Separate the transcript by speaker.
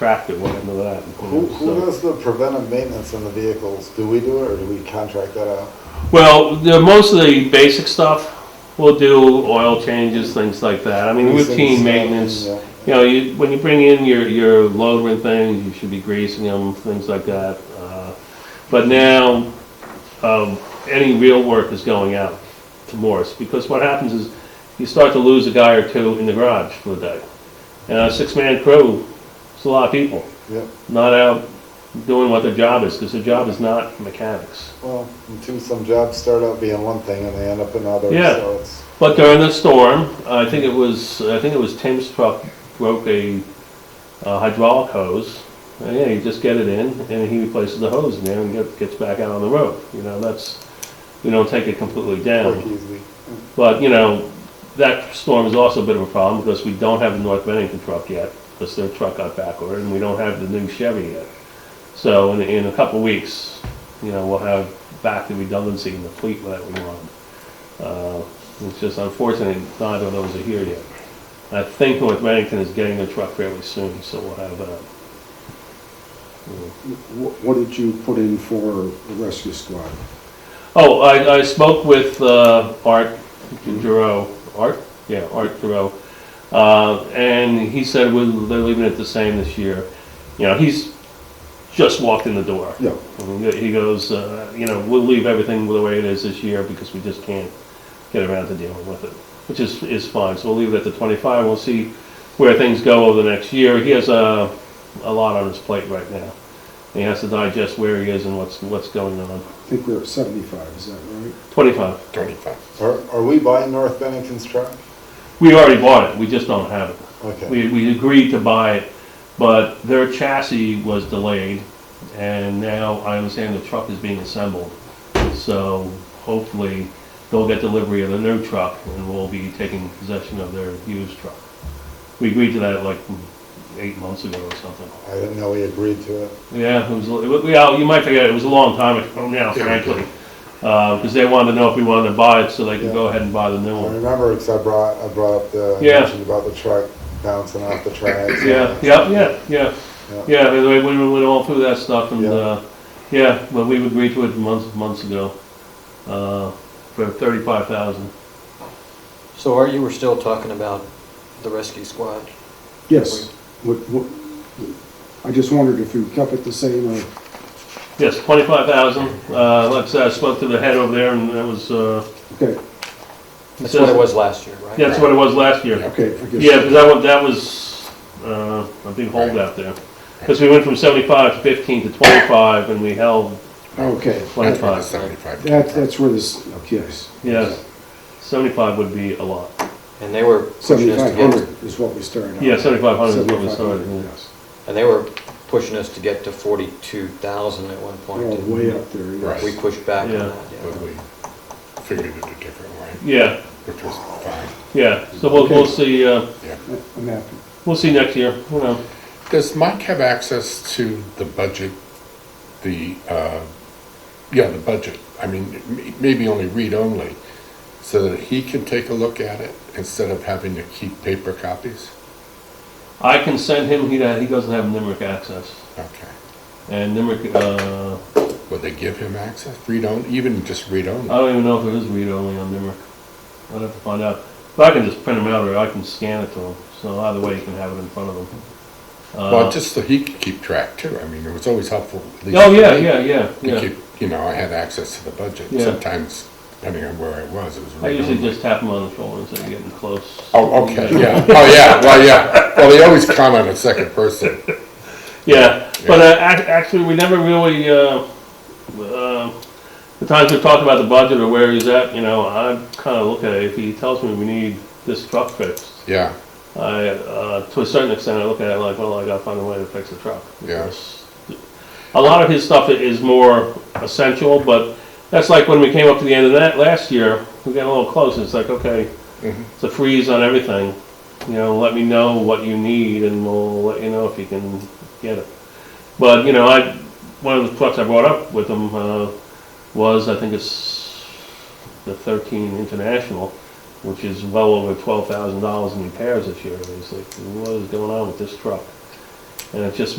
Speaker 1: tractor went into that.
Speaker 2: Who, who does the preventive maintenance on the vehicles? Do we do it or do we contract that out?
Speaker 1: Well, the, most of the basic stuff, we'll do oil changes, things like that. I mean,
Speaker 2: These things,
Speaker 1: routine maintenance.
Speaker 2: yeah.
Speaker 1: You know, you, when you bring in your, your loader and things, you should be greasing them, things like that. Uh, But now, um, any real work is going out to Morse, because what happens is you start to lose a guy or two in the garage for the day. And a six-man crew, it's a lot of people,
Speaker 2: Yep,
Speaker 1: not out doing what their job is, because their job is not mechanics.
Speaker 2: well, and two, some jobs start out being one thing and they end up another,
Speaker 1: Yeah.
Speaker 2: so it's,
Speaker 1: But during the storm, I think it was, I think it was Tim's truck broke a uh, hydraulic hose. And yeah, you just get it in and he replaces the hose in there and get- gets back out on the road. You know, that's, we don't take it completely
Speaker 2: work
Speaker 1: down.
Speaker 2: easy.
Speaker 1: But, you know, that storm is also a bit of a problem because we don't have the North Bennington truck yet because their truck got backordered and we don't have the new Chevy yet. So in, in a couple of weeks, you know, we'll have back the redundancy in the fleet that we want. Uh, It's just unfortunate neither of those are here yet. I think North Bennington is getting their truck fairly soon, so we'll have uh, that.
Speaker 3: Wh- What did you put in for the rescue squad?
Speaker 1: Oh, I, I spoke with uh, Art Giroux, Art, yeah, Art Giroux, uh, and he said we're, they're leaving it the same this year. You know, he's just walked in the door.
Speaker 3: Yeah,
Speaker 1: And He goes, uh, you know, we'll leave everything the way it is this year because we just can't get around to dealing with it, which is, is fine. So we'll leave it at the 25. We'll see where things go over the next year. He has a, a lot on his plate right now. He has to digest where he is and what's, what's going on.
Speaker 3: I think we're at 75, is that right?
Speaker 1: 25.
Speaker 2: Are, are we buying North Bennington's truck?
Speaker 1: We already bought it, we just don't have it.
Speaker 2: Okay,
Speaker 1: We, we agreed to buy it, but their chassis was delayed, and now I understand the truck is being assembled. So hopefully, they'll get delivery of the new truck, and we'll be taking possession of their used truck. We agreed to that like eight months ago or something.
Speaker 2: I didn't know we agreed to it.
Speaker 1: Yeah, it was, it- yeah, you might forget, it was a long time ago now, frankly. Because they wanted to know if we wanted to buy it, so they could go ahead and buy the new
Speaker 2: I
Speaker 1: one.
Speaker 2: remember, because I brought, I brought up the, I
Speaker 1: Oh. Yeah.
Speaker 2: mentioned about the truck bouncing off the tracks.
Speaker 1: Yeah, yeah, yeah, yeah. Yeah, we we- we went all through that stuff and,
Speaker 2: Yeah.
Speaker 1: uh, yeah, but we agreed to it months, months ago, uh, for thirty-five thousand.
Speaker 4: So are you, were still talking about the rescue squad?
Speaker 3: Yes. What, what, I just wondered if you kept it the same or,
Speaker 1: Yes, twenty-five thousand, uh, like I said, I spoke to the head over there and that was, uh.
Speaker 3: okay,
Speaker 4: That's what it was last year, right?
Speaker 1: Yeah, That's what it was last year.
Speaker 3: okay, I guess.
Speaker 1: Yeah, because that was, that was, uh, a big holdout there. Because we went from seventy-five to fifteen to twenty-five and we held
Speaker 3: Okay,
Speaker 1: twenty-five,
Speaker 5: Seventy-five.
Speaker 3: that, that's where this, okay, yes.
Speaker 1: yes. Seventy-five would be a lot.
Speaker 4: And they were pushing us to get,
Speaker 3: 7,500 is what we started out.
Speaker 1: Yeah, seventy-five hundred is what we
Speaker 3: 7,500,
Speaker 1: started. with.
Speaker 3: yes.
Speaker 4: and they were pushing us to get to forty-two thousand at one point.
Speaker 3: We're all
Speaker 4: didn't
Speaker 3: way up there, yes.
Speaker 5: Right.
Speaker 4: We pushed back on
Speaker 1: Yeah.
Speaker 4: that, yeah.
Speaker 5: But we figured it a different way,
Speaker 1: Yeah,
Speaker 5: which was fine.
Speaker 1: yeah, so we'll, we'll see, uh,
Speaker 3: I'm happy.
Speaker 1: We'll see next year, you know.
Speaker 5: Does Mike have access to the budget, the, uh, yeah, the budget? I mean, m- maybe only read-only, so that he can take a look at it instead of having to keep paper copies?
Speaker 1: I can send him, he, he doesn't have NIMRIC access.
Speaker 5: Okay.
Speaker 1: And NIMRIC, uh,
Speaker 5: Would they give him access, read-only, even just
Speaker 1: I
Speaker 5: read-only?
Speaker 1: don't even know if it is read-only on NIMRIC. I'd have to find out. But I can just print him out or I can scan it to him, so either way he can have it in front of him. Uh,
Speaker 5: Well, just so he could keep track too. I mean, it was always helpful. at least
Speaker 1: Oh,
Speaker 5: for
Speaker 1: yeah,
Speaker 5: me,
Speaker 1: yeah, yeah,
Speaker 5: To
Speaker 1: yeah.
Speaker 5: keep, you know, I had access to the budget.
Speaker 1: Yeah.
Speaker 5: Sometimes, depending on where I was, it was
Speaker 1: I
Speaker 5: read-only.
Speaker 1: usually just tap him on the shoulder and say, "You're getting close.
Speaker 5: Oh, okay, yeah, oh, yeah, well, yeah, well, they always comment in second person,
Speaker 1: Yeah, but uh, ac- actually, we never really, uh, uh, the times we talked about the budget or where he's at, you know, I kind of look at it, if he tells me we need this truck fixed,
Speaker 5: yeah,
Speaker 1: I, uh, to a certain extent, I look at it like, well, I gotta find a way to fix the truck.
Speaker 5: Yeah.
Speaker 1: Because A lot of his stuff is more essential, but that's like when we came up to the end of that last year, we got a little close, it's like, okay, it's a freeze on everything. You know, let me know what you need and we'll let you know if you can get it. But, you know, I, one of the trucks I brought up with him, uh, was, I think it's the thirteen International which is well over twelve thousand dollars in repairs this year. And he's like, what is going on with this truck? And it just